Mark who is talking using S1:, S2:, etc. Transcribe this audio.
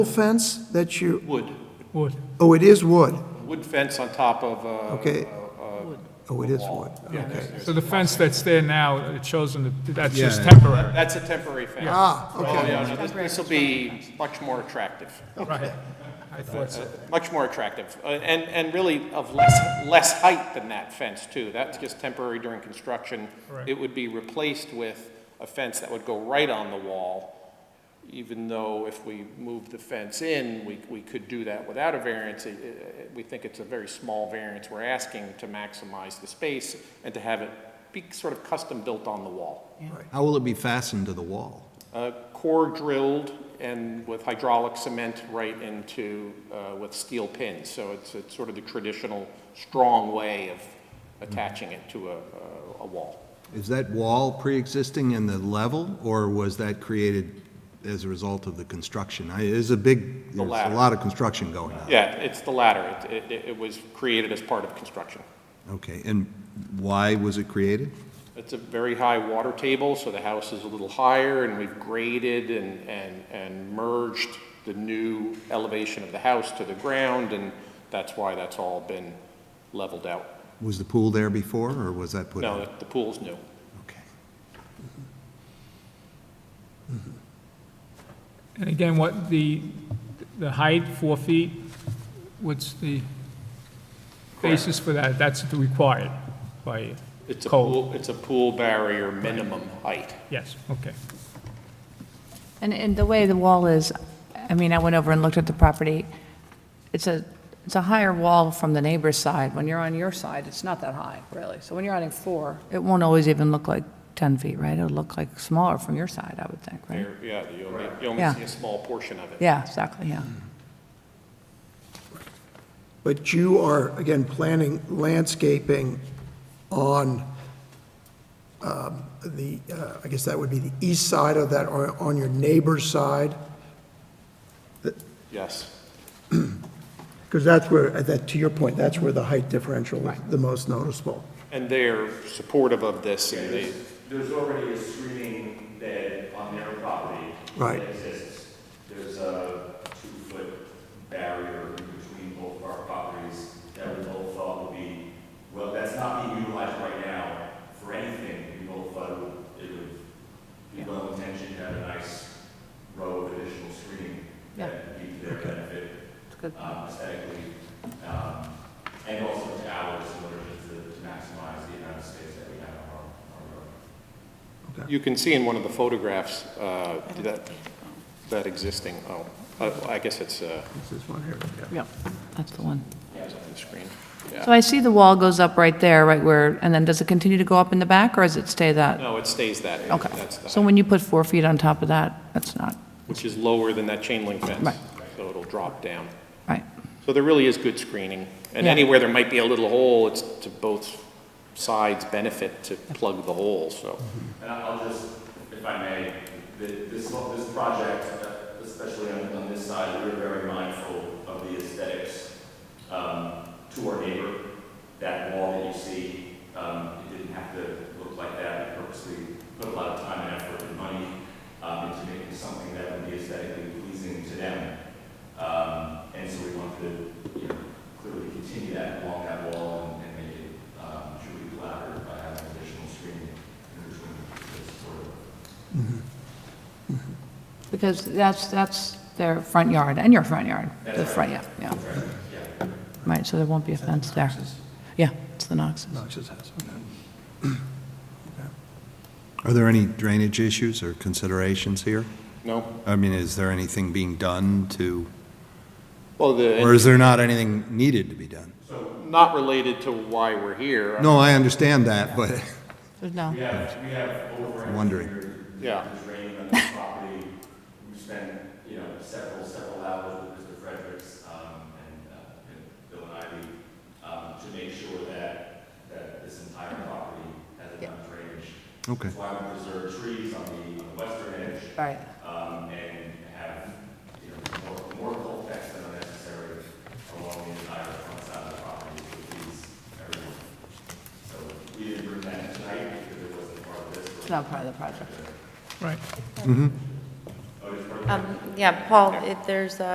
S1: fence that you,
S2: Wood,
S3: Wood.
S1: oh, it is wood?
S2: wood fence on top of, uh,
S1: Okay. Oh, it is wood, okay.
S3: So the fence that's there now, it shows in the, that's just
S4: Yeah.
S3: temporary.
S2: that's a temporary fence.
S1: Ah,
S2: Oh,
S1: okay.
S2: yeah, no, this- This will be much more attractive,
S3: Right. I thought so.
S2: much more attractive, uh, and, and really of less, less height than that fence, too. That's just temporary during construction.
S3: Right.
S2: It would be replaced with a fence that would go right on the wall, even though if we move the fence in, we, we could do that without a variance. It- it- We think it's a very small variance. We're asking to maximize the space and to have it be sort of custom-built on the wall.
S4: How will it be fastened to the wall?
S2: Uh, Core drilled and with hydraulic cement right into, uh, with steel pins. So it's, it's sort of the traditional, strong way of attaching it to a, a- a wall.
S4: Is that wall pre-existing in the level, or was that created as a result of the construction? I- It is a big, there's a
S2: latter.
S4: lot of construction going on.
S2: Yeah, it's the latter. It, it, it was created as part of construction.
S4: Okay, and why was it created?
S2: It's a very high water table, so the house is a little higher, and we've graded and, and, and merged the new elevation of the house to the ground, and that's why that's all been leveled out.
S4: Was the pool there before, or was that put in?
S2: No, the- the pool's new.
S4: Okay.
S3: And again, what the, the height, four feet, what's the basis for that? That's required by
S2: It's a
S3: code?
S2: pool, it's a pool barrier minimum height.
S3: Yes, okay.
S5: And, and the way the wall is, I mean, I went over and looked at the property. It's a, it's a higher wall from the neighbor's side. When you're on your side, it's not that high, really. So when you're on a four, it won't always even look like 10 feet, right? It'll look like smaller from your side, I would think, right?
S2: You're- Yeah, you only, you only
S5: Yeah.
S2: see a small portion of it.
S5: Yeah, exactly, yeah.
S1: But you are, again, planning landscaping on um, the, uh, I guess that would be the east side of that, or on your neighbor's side?
S2: Yes.
S1: Because that's where, at that, to your point, that's where the height differential is the most noticeable.
S2: And they're supportive of this, and they,
S6: There's already a screening bed on their property.
S1: Right.
S6: That exists. There's a two-foot barrier in between both of our properties that we both thought would be, well, that's not being utilized right now for anything. We both thought it would- it would be well intentioned to have a nice row of additional screening
S5: Yeah.
S6: that would be to their benefit
S5: It's good.
S6: um, aesthetically, um, and also to ours in order to to maximize the amount of space that we have on our- our road.
S2: you can see in one of the photographs, uh, that, that existing, oh, I- I guess it's, uh,
S1: This is one here, yeah.
S5: Yep, that's the one.
S2: it's on the screen.
S5: So I see the wall goes up right there, right where, and then does it continue to go up in the back, or does it stay that?
S2: No, it stays that.
S5: Okay.
S2: That's the
S5: So
S2: height,
S5: when you put four feet on top of that, that's not,
S2: Which is lower than that chain link fence.
S5: Right.
S2: So it'll drop down.
S5: right?
S2: So there really is good screening. And
S5: Yeah.
S2: anywhere there might be a little hole, it's to both sides' benefit to plug the hole, so.
S6: And I'll just, if I may, th- this, this project, uh, especially on, on this side, we're very mindful of the aesthetics um, to our neighbor. That wall that you see, um, it didn't have to look like that. We purposely put a lot of time and effort and money um, into making something that would be aesthetically pleasing to them. Um, And so we wanted to, you know, clearly continue that along that wall and- and make it um, truly collaborative by having additional screening in between the sort of
S5: Because that's, that's their front yard and your front yard, the front, yeah, yeah. Right, so there won't be a fence there. Yeah, it's the Knoxes.
S1: Noxious house, okay.
S4: Are there any drainage issues or considerations here?
S2: No?
S4: I mean, is there anything being done to,
S2: Well, the.
S4: or is there not anything needed to be done?
S2: not related to why we're here.
S4: No, I understand that, but
S5: There's no,
S4: wondering.
S2: Yeah,
S6: draining on this property. We spent, you know, several, several hours with Mr. Fredericks, um, and, uh, and Bill and Ivy, um, to make sure that, that this entire property has enough drainage.
S4: Okay.
S6: That's why we preserve trees on the, on the western edge,
S5: right.
S6: um, and have, you know, more, more cold decks than are necessary along the entire front side of the property, to please everyone. So we didn't bring that tonight because it wasn't part of this,
S5: It's not part of the project.
S3: Right.
S6: but it was part of
S7: Um, Yeah, Paul, if there's a